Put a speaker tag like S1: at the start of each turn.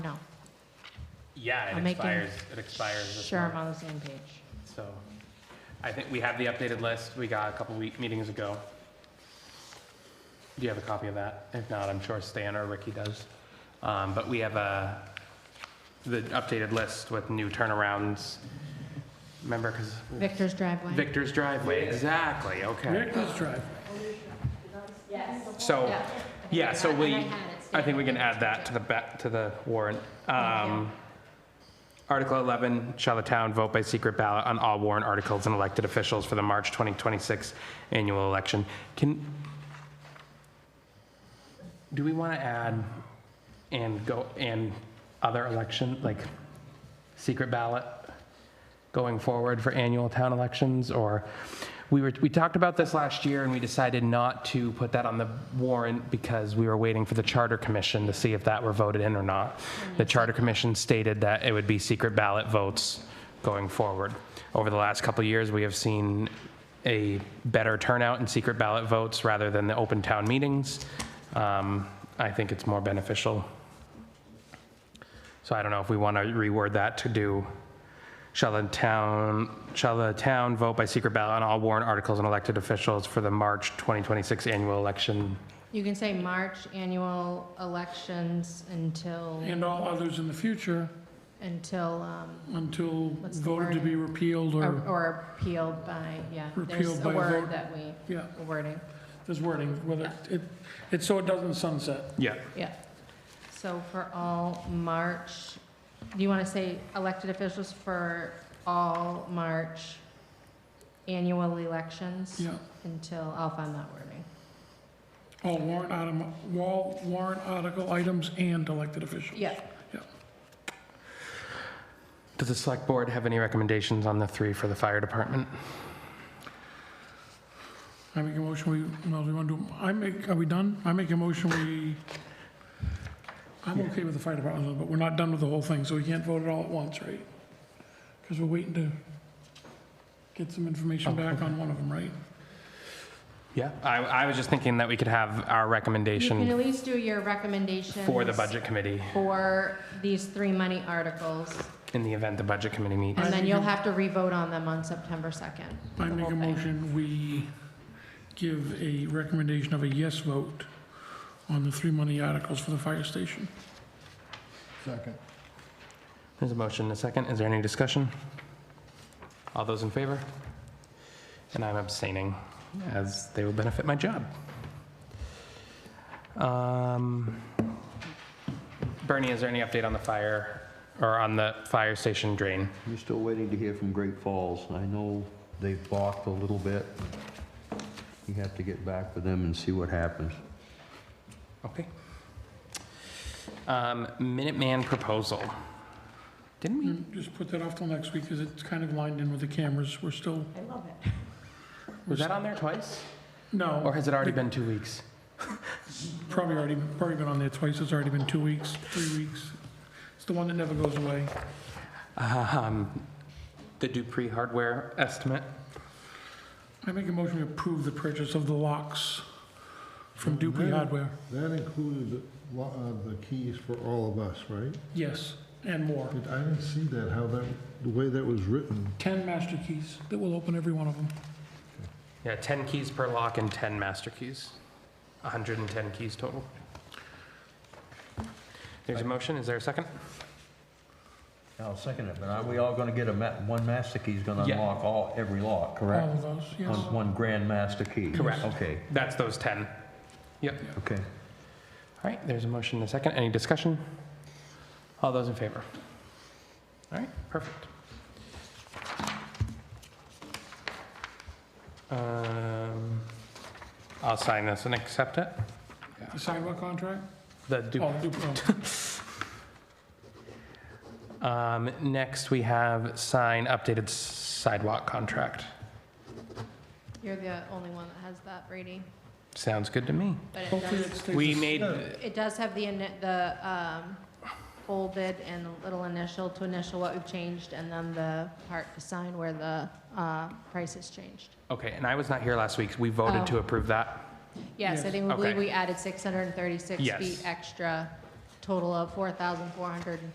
S1: Yeah,
S2: I'm
S1: it
S2: making
S1: expires, it expires this
S2: Sure, I'm
S1: month,
S2: on the same page.
S1: so. I think we have the updated list, we got a couple week, meetings ago. Do you have a copy of that? If not, I'm sure Stan or Ricky does. Um, but we have a, the updated list with new turnarounds. Remember, because
S2: Victor's driveway.
S1: Victor's driveway, exactly, okay.
S3: Victor's Drive.
S1: So,
S2: Yeah.
S1: yeah, so
S2: And I
S1: we,
S2: had it, so-
S1: I think we can add that to the back, to the warrant. Um, Article 11, shall the town vote by secret ballot on all warrant articles and elected officials for the March 2026 annual election? Can, do we want to add and go, and other election, like secret ballot going forward for annual town elections? Or, we were, we talked about this last year and we decided not to put that on the warrant because we were waiting for the Charter Commission to see if that were voted in or not. The Charter Commission stated that it would be secret ballot votes going forward. Over the last couple of years, we have seen a better turnout in secret ballot votes rather than the open town meetings. Um, I think it's more beneficial. So I don't know if we want to reword that to do, shall the town, shall the town vote by secret ballot on all warrant articles and elected officials for the March 2026 annual election?
S2: You can say March annual elections until,
S3: And all others in the future
S2: until, um,
S3: until
S2: What's the
S3: voted to be repealed
S2: or
S3: or,
S2: or appealed by, yeah. There's
S3: Repealed
S2: a
S3: by
S2: word
S3: vote.
S2: that we,
S3: yeah,
S2: a wording,
S3: there's wording, whether, it, it's so it doesn't sunset.
S1: Yeah.
S2: yeah. So for all March, do you want to say elected officials for all March annual elections?
S3: Yeah.
S2: Until, I'll find that wording.
S3: All warrant item, wall warrant article items and elected officials.
S2: Yeah,
S1: Does the select board have any recommendations on the three for the fire department?
S3: I make a motion, we, no, we want to, I make, are we done? I make a motion, we, I'm okay with the fire department, but we're not done with the whole thing, so we can't vote it all at once, right? Because we're waiting to get some information
S1: Oh,
S3: back on one of them, right?
S1: Yeah. I, I was just thinking that we could have our
S2: you can at
S1: recommendation
S2: least do your recommendations.
S1: for the budget committee
S2: For these three money articles,
S1: in the event the budget committee meets.
S2: and then
S3: think
S2: you'll
S3: you-
S2: have to revote on them on September 2nd.
S3: I
S2: the
S3: make
S2: whole
S3: a
S2: thing.
S3: motion, we give a recommendation of a yes vote on the three money articles for the fire station.
S4: Second.
S1: There's a motion and a second. Is there any discussion? All those in favor? And I'm abstaining, as they will benefit my job. Um, Bernie, is there any update on the fire, or on the fire station drain?
S4: We're still waiting to hear from Great Falls. I know they've balked a little bit. You have to get back with them and see what happens.
S1: Okay. Um, Minuteman proposal. Didn't we?
S3: Mm, Just put that off till next week, because it's kind of lined in with the cameras, we're still,
S2: I love it.
S1: Was that on there twice? Or
S3: no,
S1: has it already been two weeks?
S3: probably already, probably been on there twice, it's already been two weeks, three weeks. It's the one that never goes away.
S1: Um, The Dupree hardware estimate?
S3: I make a motion to approve the purchase of the locks from Dupree Hardware,
S5: That included a lot of the keys for all of us, right?
S3: yes, and more.
S5: But I didn't see that, how that, the way that was written.
S3: 10 master keys that will open every one of them.
S1: Yeah, 10 keys per lock and 10 master keys. 110 keys total. There's a motion, is there a second?
S4: I'll second it, but are we all gonna get a ma, one master key's gonna
S1: Yeah.
S4: unlock all, every lock,
S3: All
S4: correct?
S3: of those, yes.
S4: One, one grand master key?
S1: Correct.
S4: Okay,
S1: That's those 10.
S4: okay.
S1: All right, there's a motion and a second, any discussion? All those in favor? All right, perfect. Um, I'll sign this and accept it.
S3: The sidewalk contract?
S1: The Dupree
S3: Oh, Dupree, oh,
S1: Um, next, we have sign updated sidewalk contract.
S2: You're the only one that has that, Brady,
S1: Sounds good to me.
S2: but it
S3: Hopefully it
S2: does,
S3: stays.
S1: We
S3: the
S1: made,
S3: same.
S2: it does have the, ini- the um, folded and a little initial to initial what we've changed, and then the part to sign where the uh, price has changed.
S1: okay, and I was not here last week. We voted to
S2: Oh.
S1: approve that.
S2: Yes, I
S3: Yes.
S2: think, we believe
S1: Okay.
S2: we added 636
S1: Yes.
S2: feet extra, total of 4,400